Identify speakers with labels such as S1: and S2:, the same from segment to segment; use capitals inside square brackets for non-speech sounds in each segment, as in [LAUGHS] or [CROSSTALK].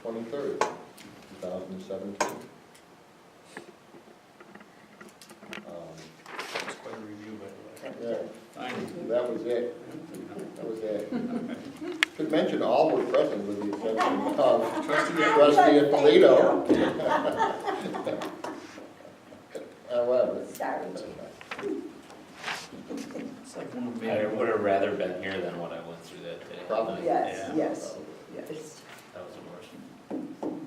S1: twenty-third, two thousand and seventeen.
S2: That's quite a review, by the way.
S1: Um, Yeah,
S2: Fine.
S1: that was it, that was it. Should mention all were present with the exception of
S2: Trustee,
S1: trustee Polito. However.
S3: Sorry, Chief.
S2: it's like one of the-
S4: I would have rather been here than what I went through that day.
S1: Probably.
S3: Yes,
S2: Yeah.
S3: yes, yes.
S4: That was the worst.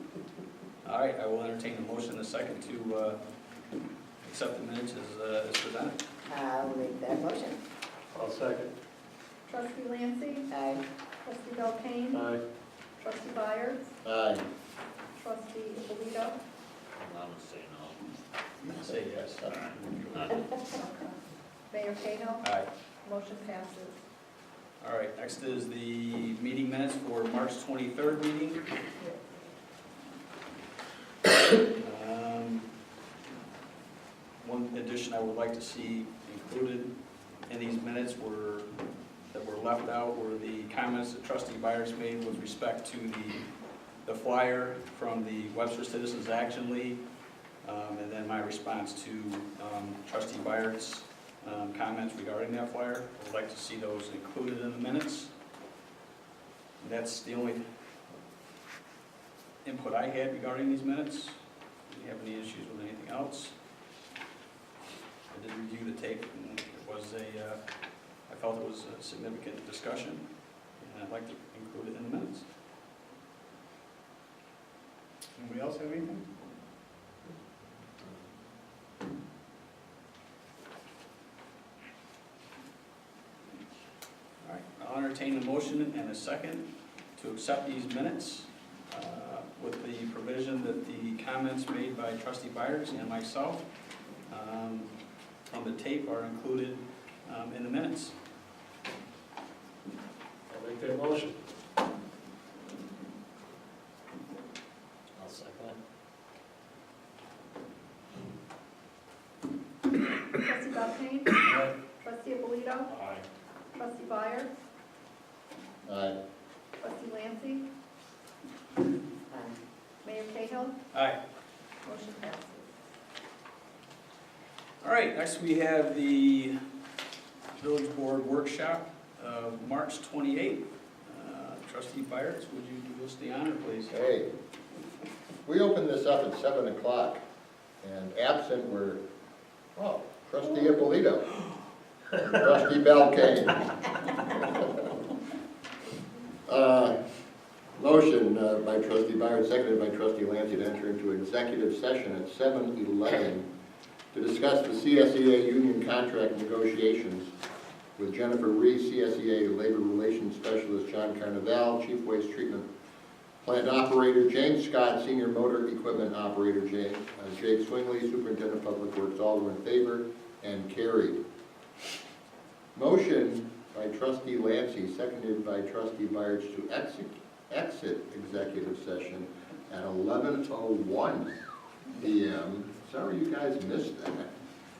S2: All right, I will entertain a motion in a second to uh, accept the minutes as uh, as presented.
S3: I'll make that motion.
S5: I'll second.
S6: Trustee Lancy,
S3: Aye.
S6: trustee Belkane,
S5: Aye.
S6: trustee Byers,
S1: Aye.
S6: trustee Alito,
S4: I'm gonna say no.
S2: Say yes.
S6: Mayor Cahill,
S2: All right,
S6: motion passes.
S2: all right, next is the meeting minutes for March 23rd meeting. Um, One addition I would like to see included in these minutes were, that were left out were the comments that trustee Byers made with respect to the, the flyer from the Webster Citizens Action League, um, and then my response to um, trustee Byers' um, comments regarding that flyer. I would like to see those included in the minutes. That's the only input I had regarding these minutes. Do you have any issues with anything else? I did review the tape, and it was a, uh, I felt it was a significant discussion, and I'd like to include it in the minutes. Anybody else have anything? All right, I'll entertain a motion and a second to accept these minutes uh, with the provision that the comments made by trustee Byers and myself um, from the tape are included um, in the minutes.
S5: I'll make that motion.
S4: I'll second it.
S6: Trustee Belkane,
S5: Aye.
S6: trustee Alito,
S4: Aye.
S6: trustee Byers,
S1: Aye.
S6: trustee Lancy,
S3: Aye.
S6: Mayor Cahill,
S2: Aye.
S6: motion passes.
S2: All right, next we have the village board workshop of March 28th. Uh, Trustee Byers, would you do us the honor, please?
S1: Hey, we opened this up at seven o'clock, and absent were, oh, trustee Ippolito, and trustee Belkane. [LAUGHS] Uh, Motion uh, by trustee Byron, seconded by trustee Lancy to enter into executive session at seven eleven to discuss the CSEA union contract negotiations with Jennifer Reese, CSEA Labor Relations Specialist, John Carnaval, Chief Waste Treatment Plant operator James Scott, senior motor equipment operator Ja- uh, Jake Swingley, superintendent of public works, all were in favor and carried. Motion by trustee Lancy, seconded by trustee Byers to exit, exit executive session at eleven oh one PM. Sorry you guys missed that.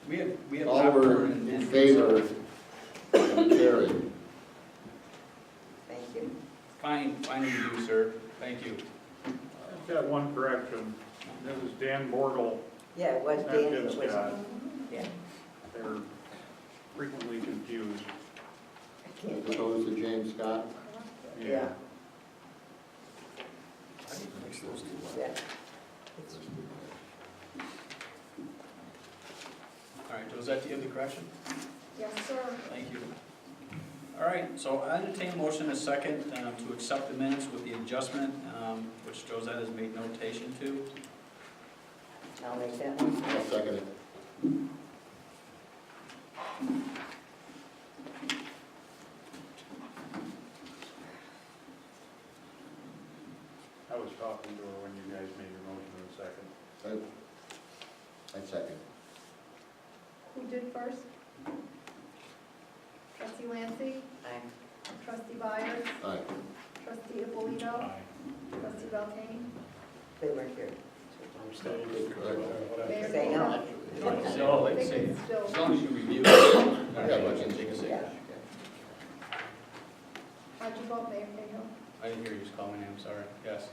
S2: We have, we have.
S1: All were
S2: popcorn and-
S1: in favor and carried.
S3: Thank you.
S2: Fine, fine you do, sir. Thank you.
S5: I've got one correction. That was Dan Borgel,
S3: Yeah, it was
S5: not
S3: Dan.
S5: Jim
S3: it was-
S5: Scott.
S3: Yeah.
S5: They're frequently confused.
S3: I
S1: As
S3: can't-
S1: opposed to James Scott.
S3: Yeah,
S2: I didn't mix those two up.
S3: yeah.
S2: All right, Josette, do you have the correction?
S6: Yes, sir.
S2: Thank you. All right, so I entertain a motion in a second um, to accept the minutes with the adjustment, um, which Josette has made notation to.
S3: I'll make that one.
S1: I'll second it.
S5: I was talking to her when you guys made your motion in a second.
S1: Uh, I second.
S6: Who did first? Trustee Lancy,
S3: Aye.
S6: trustee Byers,
S1: Aye.
S6: trustee Alito, trustee Belkane,
S3: They weren't here.
S6: Mayor
S3: Say
S6: Cahill.
S3: no.
S2: So,
S6: I
S2: like Oh, I
S6: think
S2: say,
S6: it's still.
S2: as long as you review it.
S1: Yeah, but you-
S2: Take a seat.
S3: Yeah.
S6: How'd you vote, Mayor Cahill?
S2: I didn't hear you just call my name, sorry. Yes.